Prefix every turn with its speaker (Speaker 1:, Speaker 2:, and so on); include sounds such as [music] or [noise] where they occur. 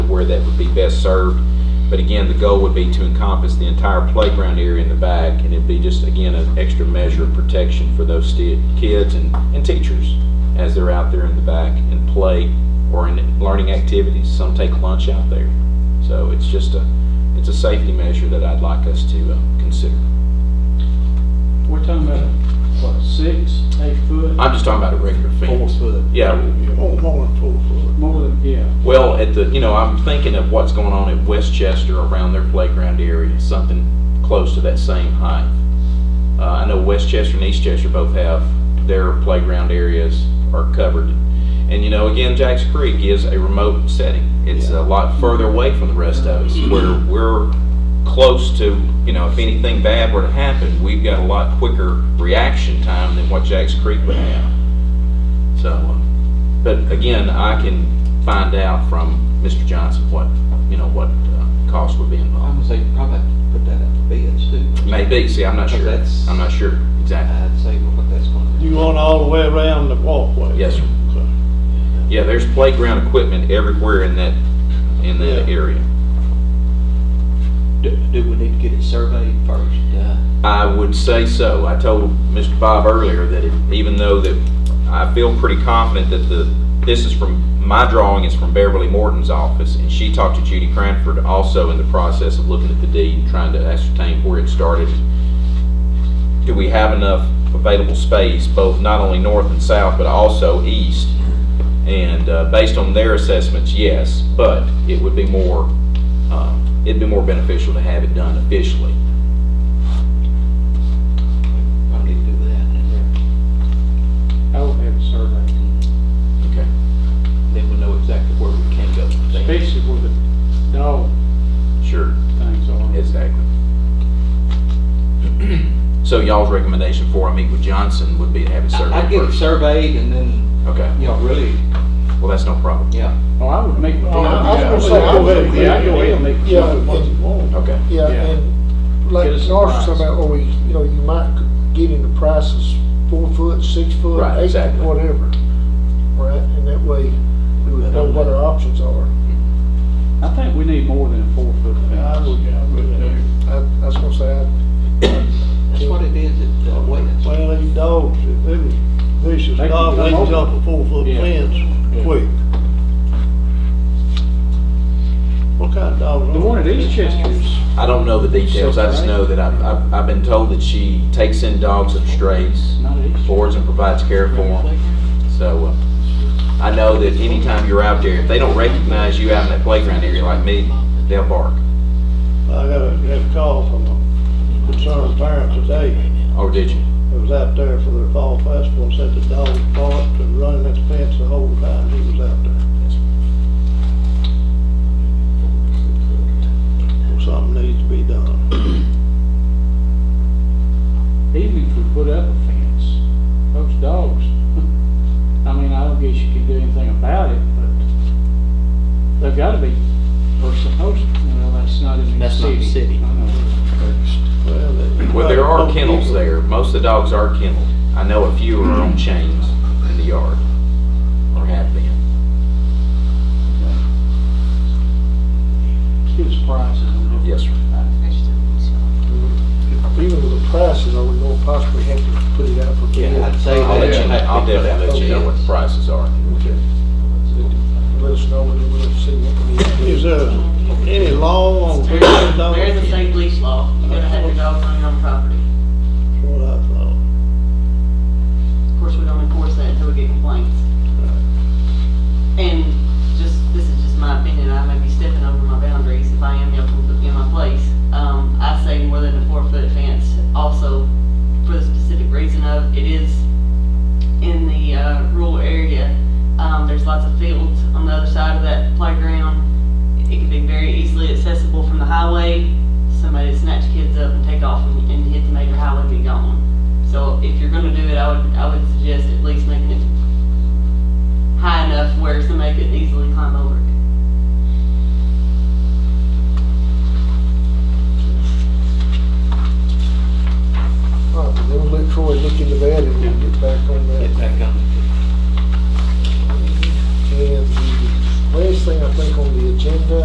Speaker 1: where that would be best served. But again, the goal would be to encompass the entire playground area in the back, and it'd be just, again, an extra measure of protection for those sti- kids and, and teachers as they're out there in the back and play or in learning activities. Some take lunch out there. So it's just a, it's a safety measure that I'd like us to uh, consider.
Speaker 2: We're talking about, what, six, eight foot?
Speaker 1: I'm just talking about a regular
Speaker 3: Four
Speaker 1: fence.
Speaker 3: foot.
Speaker 1: Yeah,
Speaker 3: More, more than four foot.
Speaker 2: More than, yeah.
Speaker 1: Well, at the, you know, I'm thinking of what's going on at Westchester around their playground area, something close to that same height. Uh, I know Westchester and Eastchester both have their playground areas are covered. And you know, again, Jacks Creek is a remote setting. It's a lot further away from the rest of us, where we're close to, you know, if anything bad were to happen, we've got a lot quicker reaction time than what Jacks Creek would have. So, uh, but again, I can find out from Mr. Johnson what, you know, what uh, costs would be
Speaker 4: I'm
Speaker 1: involved.
Speaker 4: gonna say you probably have to put that out to bids too.
Speaker 1: Maybe, see, I'm not sure.
Speaker 4: That's-
Speaker 1: I'm not sure exactly.
Speaker 4: I'd say what that's gonna be.
Speaker 3: You want all the way around the walkway?
Speaker 1: Yes, sir.
Speaker 3: Okay.
Speaker 1: Yeah, there's playground equipment everywhere in that, in that
Speaker 3: Yeah.
Speaker 1: area.
Speaker 4: Do, do we need to get it surveyed first? Uh,
Speaker 1: I would say so. I told Mr. Bob earlier that it- even though that I feel pretty confident that the, this is from, my drawing is from Beverly Morton's office, and she talked to Judy Cranford also in the process of looking at the deed and trying to ascertain where it started. Do we have enough available space, both not only north and south, but also east? And uh, based on their assessments, yes, but it would be more, um, it'd be more beneficial to have it done officially.
Speaker 4: we probably need to do that and
Speaker 2: I would have a survey,
Speaker 1: Okay.
Speaker 4: then we'll know exactly where we can go. from there.
Speaker 2: especially where the dog
Speaker 1: Sure,
Speaker 2: things are.
Speaker 1: exactly. So y'all's recommendation before I meet with Johnson would be to have it
Speaker 4: I- I'd
Speaker 1: surveyed
Speaker 4: get it
Speaker 1: first?
Speaker 4: surveyed and then,
Speaker 1: Okay,
Speaker 4: you know, really,
Speaker 1: well, that's no problem.
Speaker 4: yeah.
Speaker 2: Oh, I would make.
Speaker 5: Oh, I was gonna say,
Speaker 2: Yeah,
Speaker 5: I
Speaker 2: go
Speaker 5: would-
Speaker 2: ahead, Yeah, go ahead and make.
Speaker 5: Yeah,
Speaker 2: what you want.
Speaker 1: Okay,
Speaker 5: Yeah,
Speaker 2: Yeah.
Speaker 5: and like
Speaker 2: Get us some
Speaker 5: Narcisse
Speaker 2: price.
Speaker 5: talking about, or we, you know, you might get into prices four foot, six foot,
Speaker 1: Right,
Speaker 5: eight,
Speaker 1: exactly.
Speaker 5: foot, whatever. Right, and that way we would know what our options are.
Speaker 2: I think we need more than a four foot
Speaker 5: I
Speaker 2: fence.
Speaker 5: would-
Speaker 3: Yeah, I would do.
Speaker 5: I, I was gonna say, I-
Speaker 4: That's what it is at, uh, Wayne's.
Speaker 3: Well, these dogs, if they was vicious
Speaker 2: They can
Speaker 3: dogs, they
Speaker 2: come
Speaker 3: jump
Speaker 2: over.
Speaker 3: a four foot
Speaker 2: Yeah.
Speaker 3: fence quick. What kind of dogs? are
Speaker 2: The one at
Speaker 3: they?
Speaker 2: Eastchester's,
Speaker 1: I don't know the details, I just know that I've, I've, I've been told that she takes in dogs of strays,
Speaker 2: not at Eastchester's.
Speaker 1: boards and provides care for them. So, uh, I know that anytime you're out there, if they don't recognize you out in that playground area like me, they'll bark.
Speaker 3: I got a, got a call from a concerned parent today.
Speaker 1: Or Oh, did you?
Speaker 3: It was out there for their fall festival, and said the dog barked and running at the fence the whole time he was out there. So Something needs to be done.
Speaker 2: Even if we put up a fence, those dogs, [laughs] I mean, I don't guess you can do anything about it, but they've gotta be, or supposed, well, that's not in the
Speaker 4: That's not
Speaker 2: city.
Speaker 4: the city.
Speaker 2: I know.
Speaker 3: Well, they-
Speaker 1: Well, there are kennels there, most of the dogs are kenneled. I know a few are on chains in the yard, or have been.
Speaker 2: Give us prices on different.
Speaker 1: Yes, sir.
Speaker 5: even with the prices, are we gonna possibly have to put it out for bid?
Speaker 4: Yeah, I'd say.
Speaker 1: I'll let you know,
Speaker 4: that-
Speaker 1: Oh, I'll definitely let you know what the prices are.
Speaker 5: Let us know when we'll see what we need.
Speaker 3: Is there any law on kennel dogs?
Speaker 6: There is a state police law, you gotta have your dogs on your own property.
Speaker 3: That's What I thought.
Speaker 6: Of course, we don't enforce that until we get complaints. And just, this is just my opinion, I may be stepping over my boundaries, if I am, y'all can put me in my place. Um, I say more than a four-foot fence, also for the specific reason of, it is in the, uh, rural area. Um, there's lots of fields on the other side of that playground. It could be very easily accessible from the highway. Somebody snatch kids up and take off and, and hit the major highway and be gone. So if you're gonna do it, I would, I would suggest at least making it high enough where somebody could easily climb over it.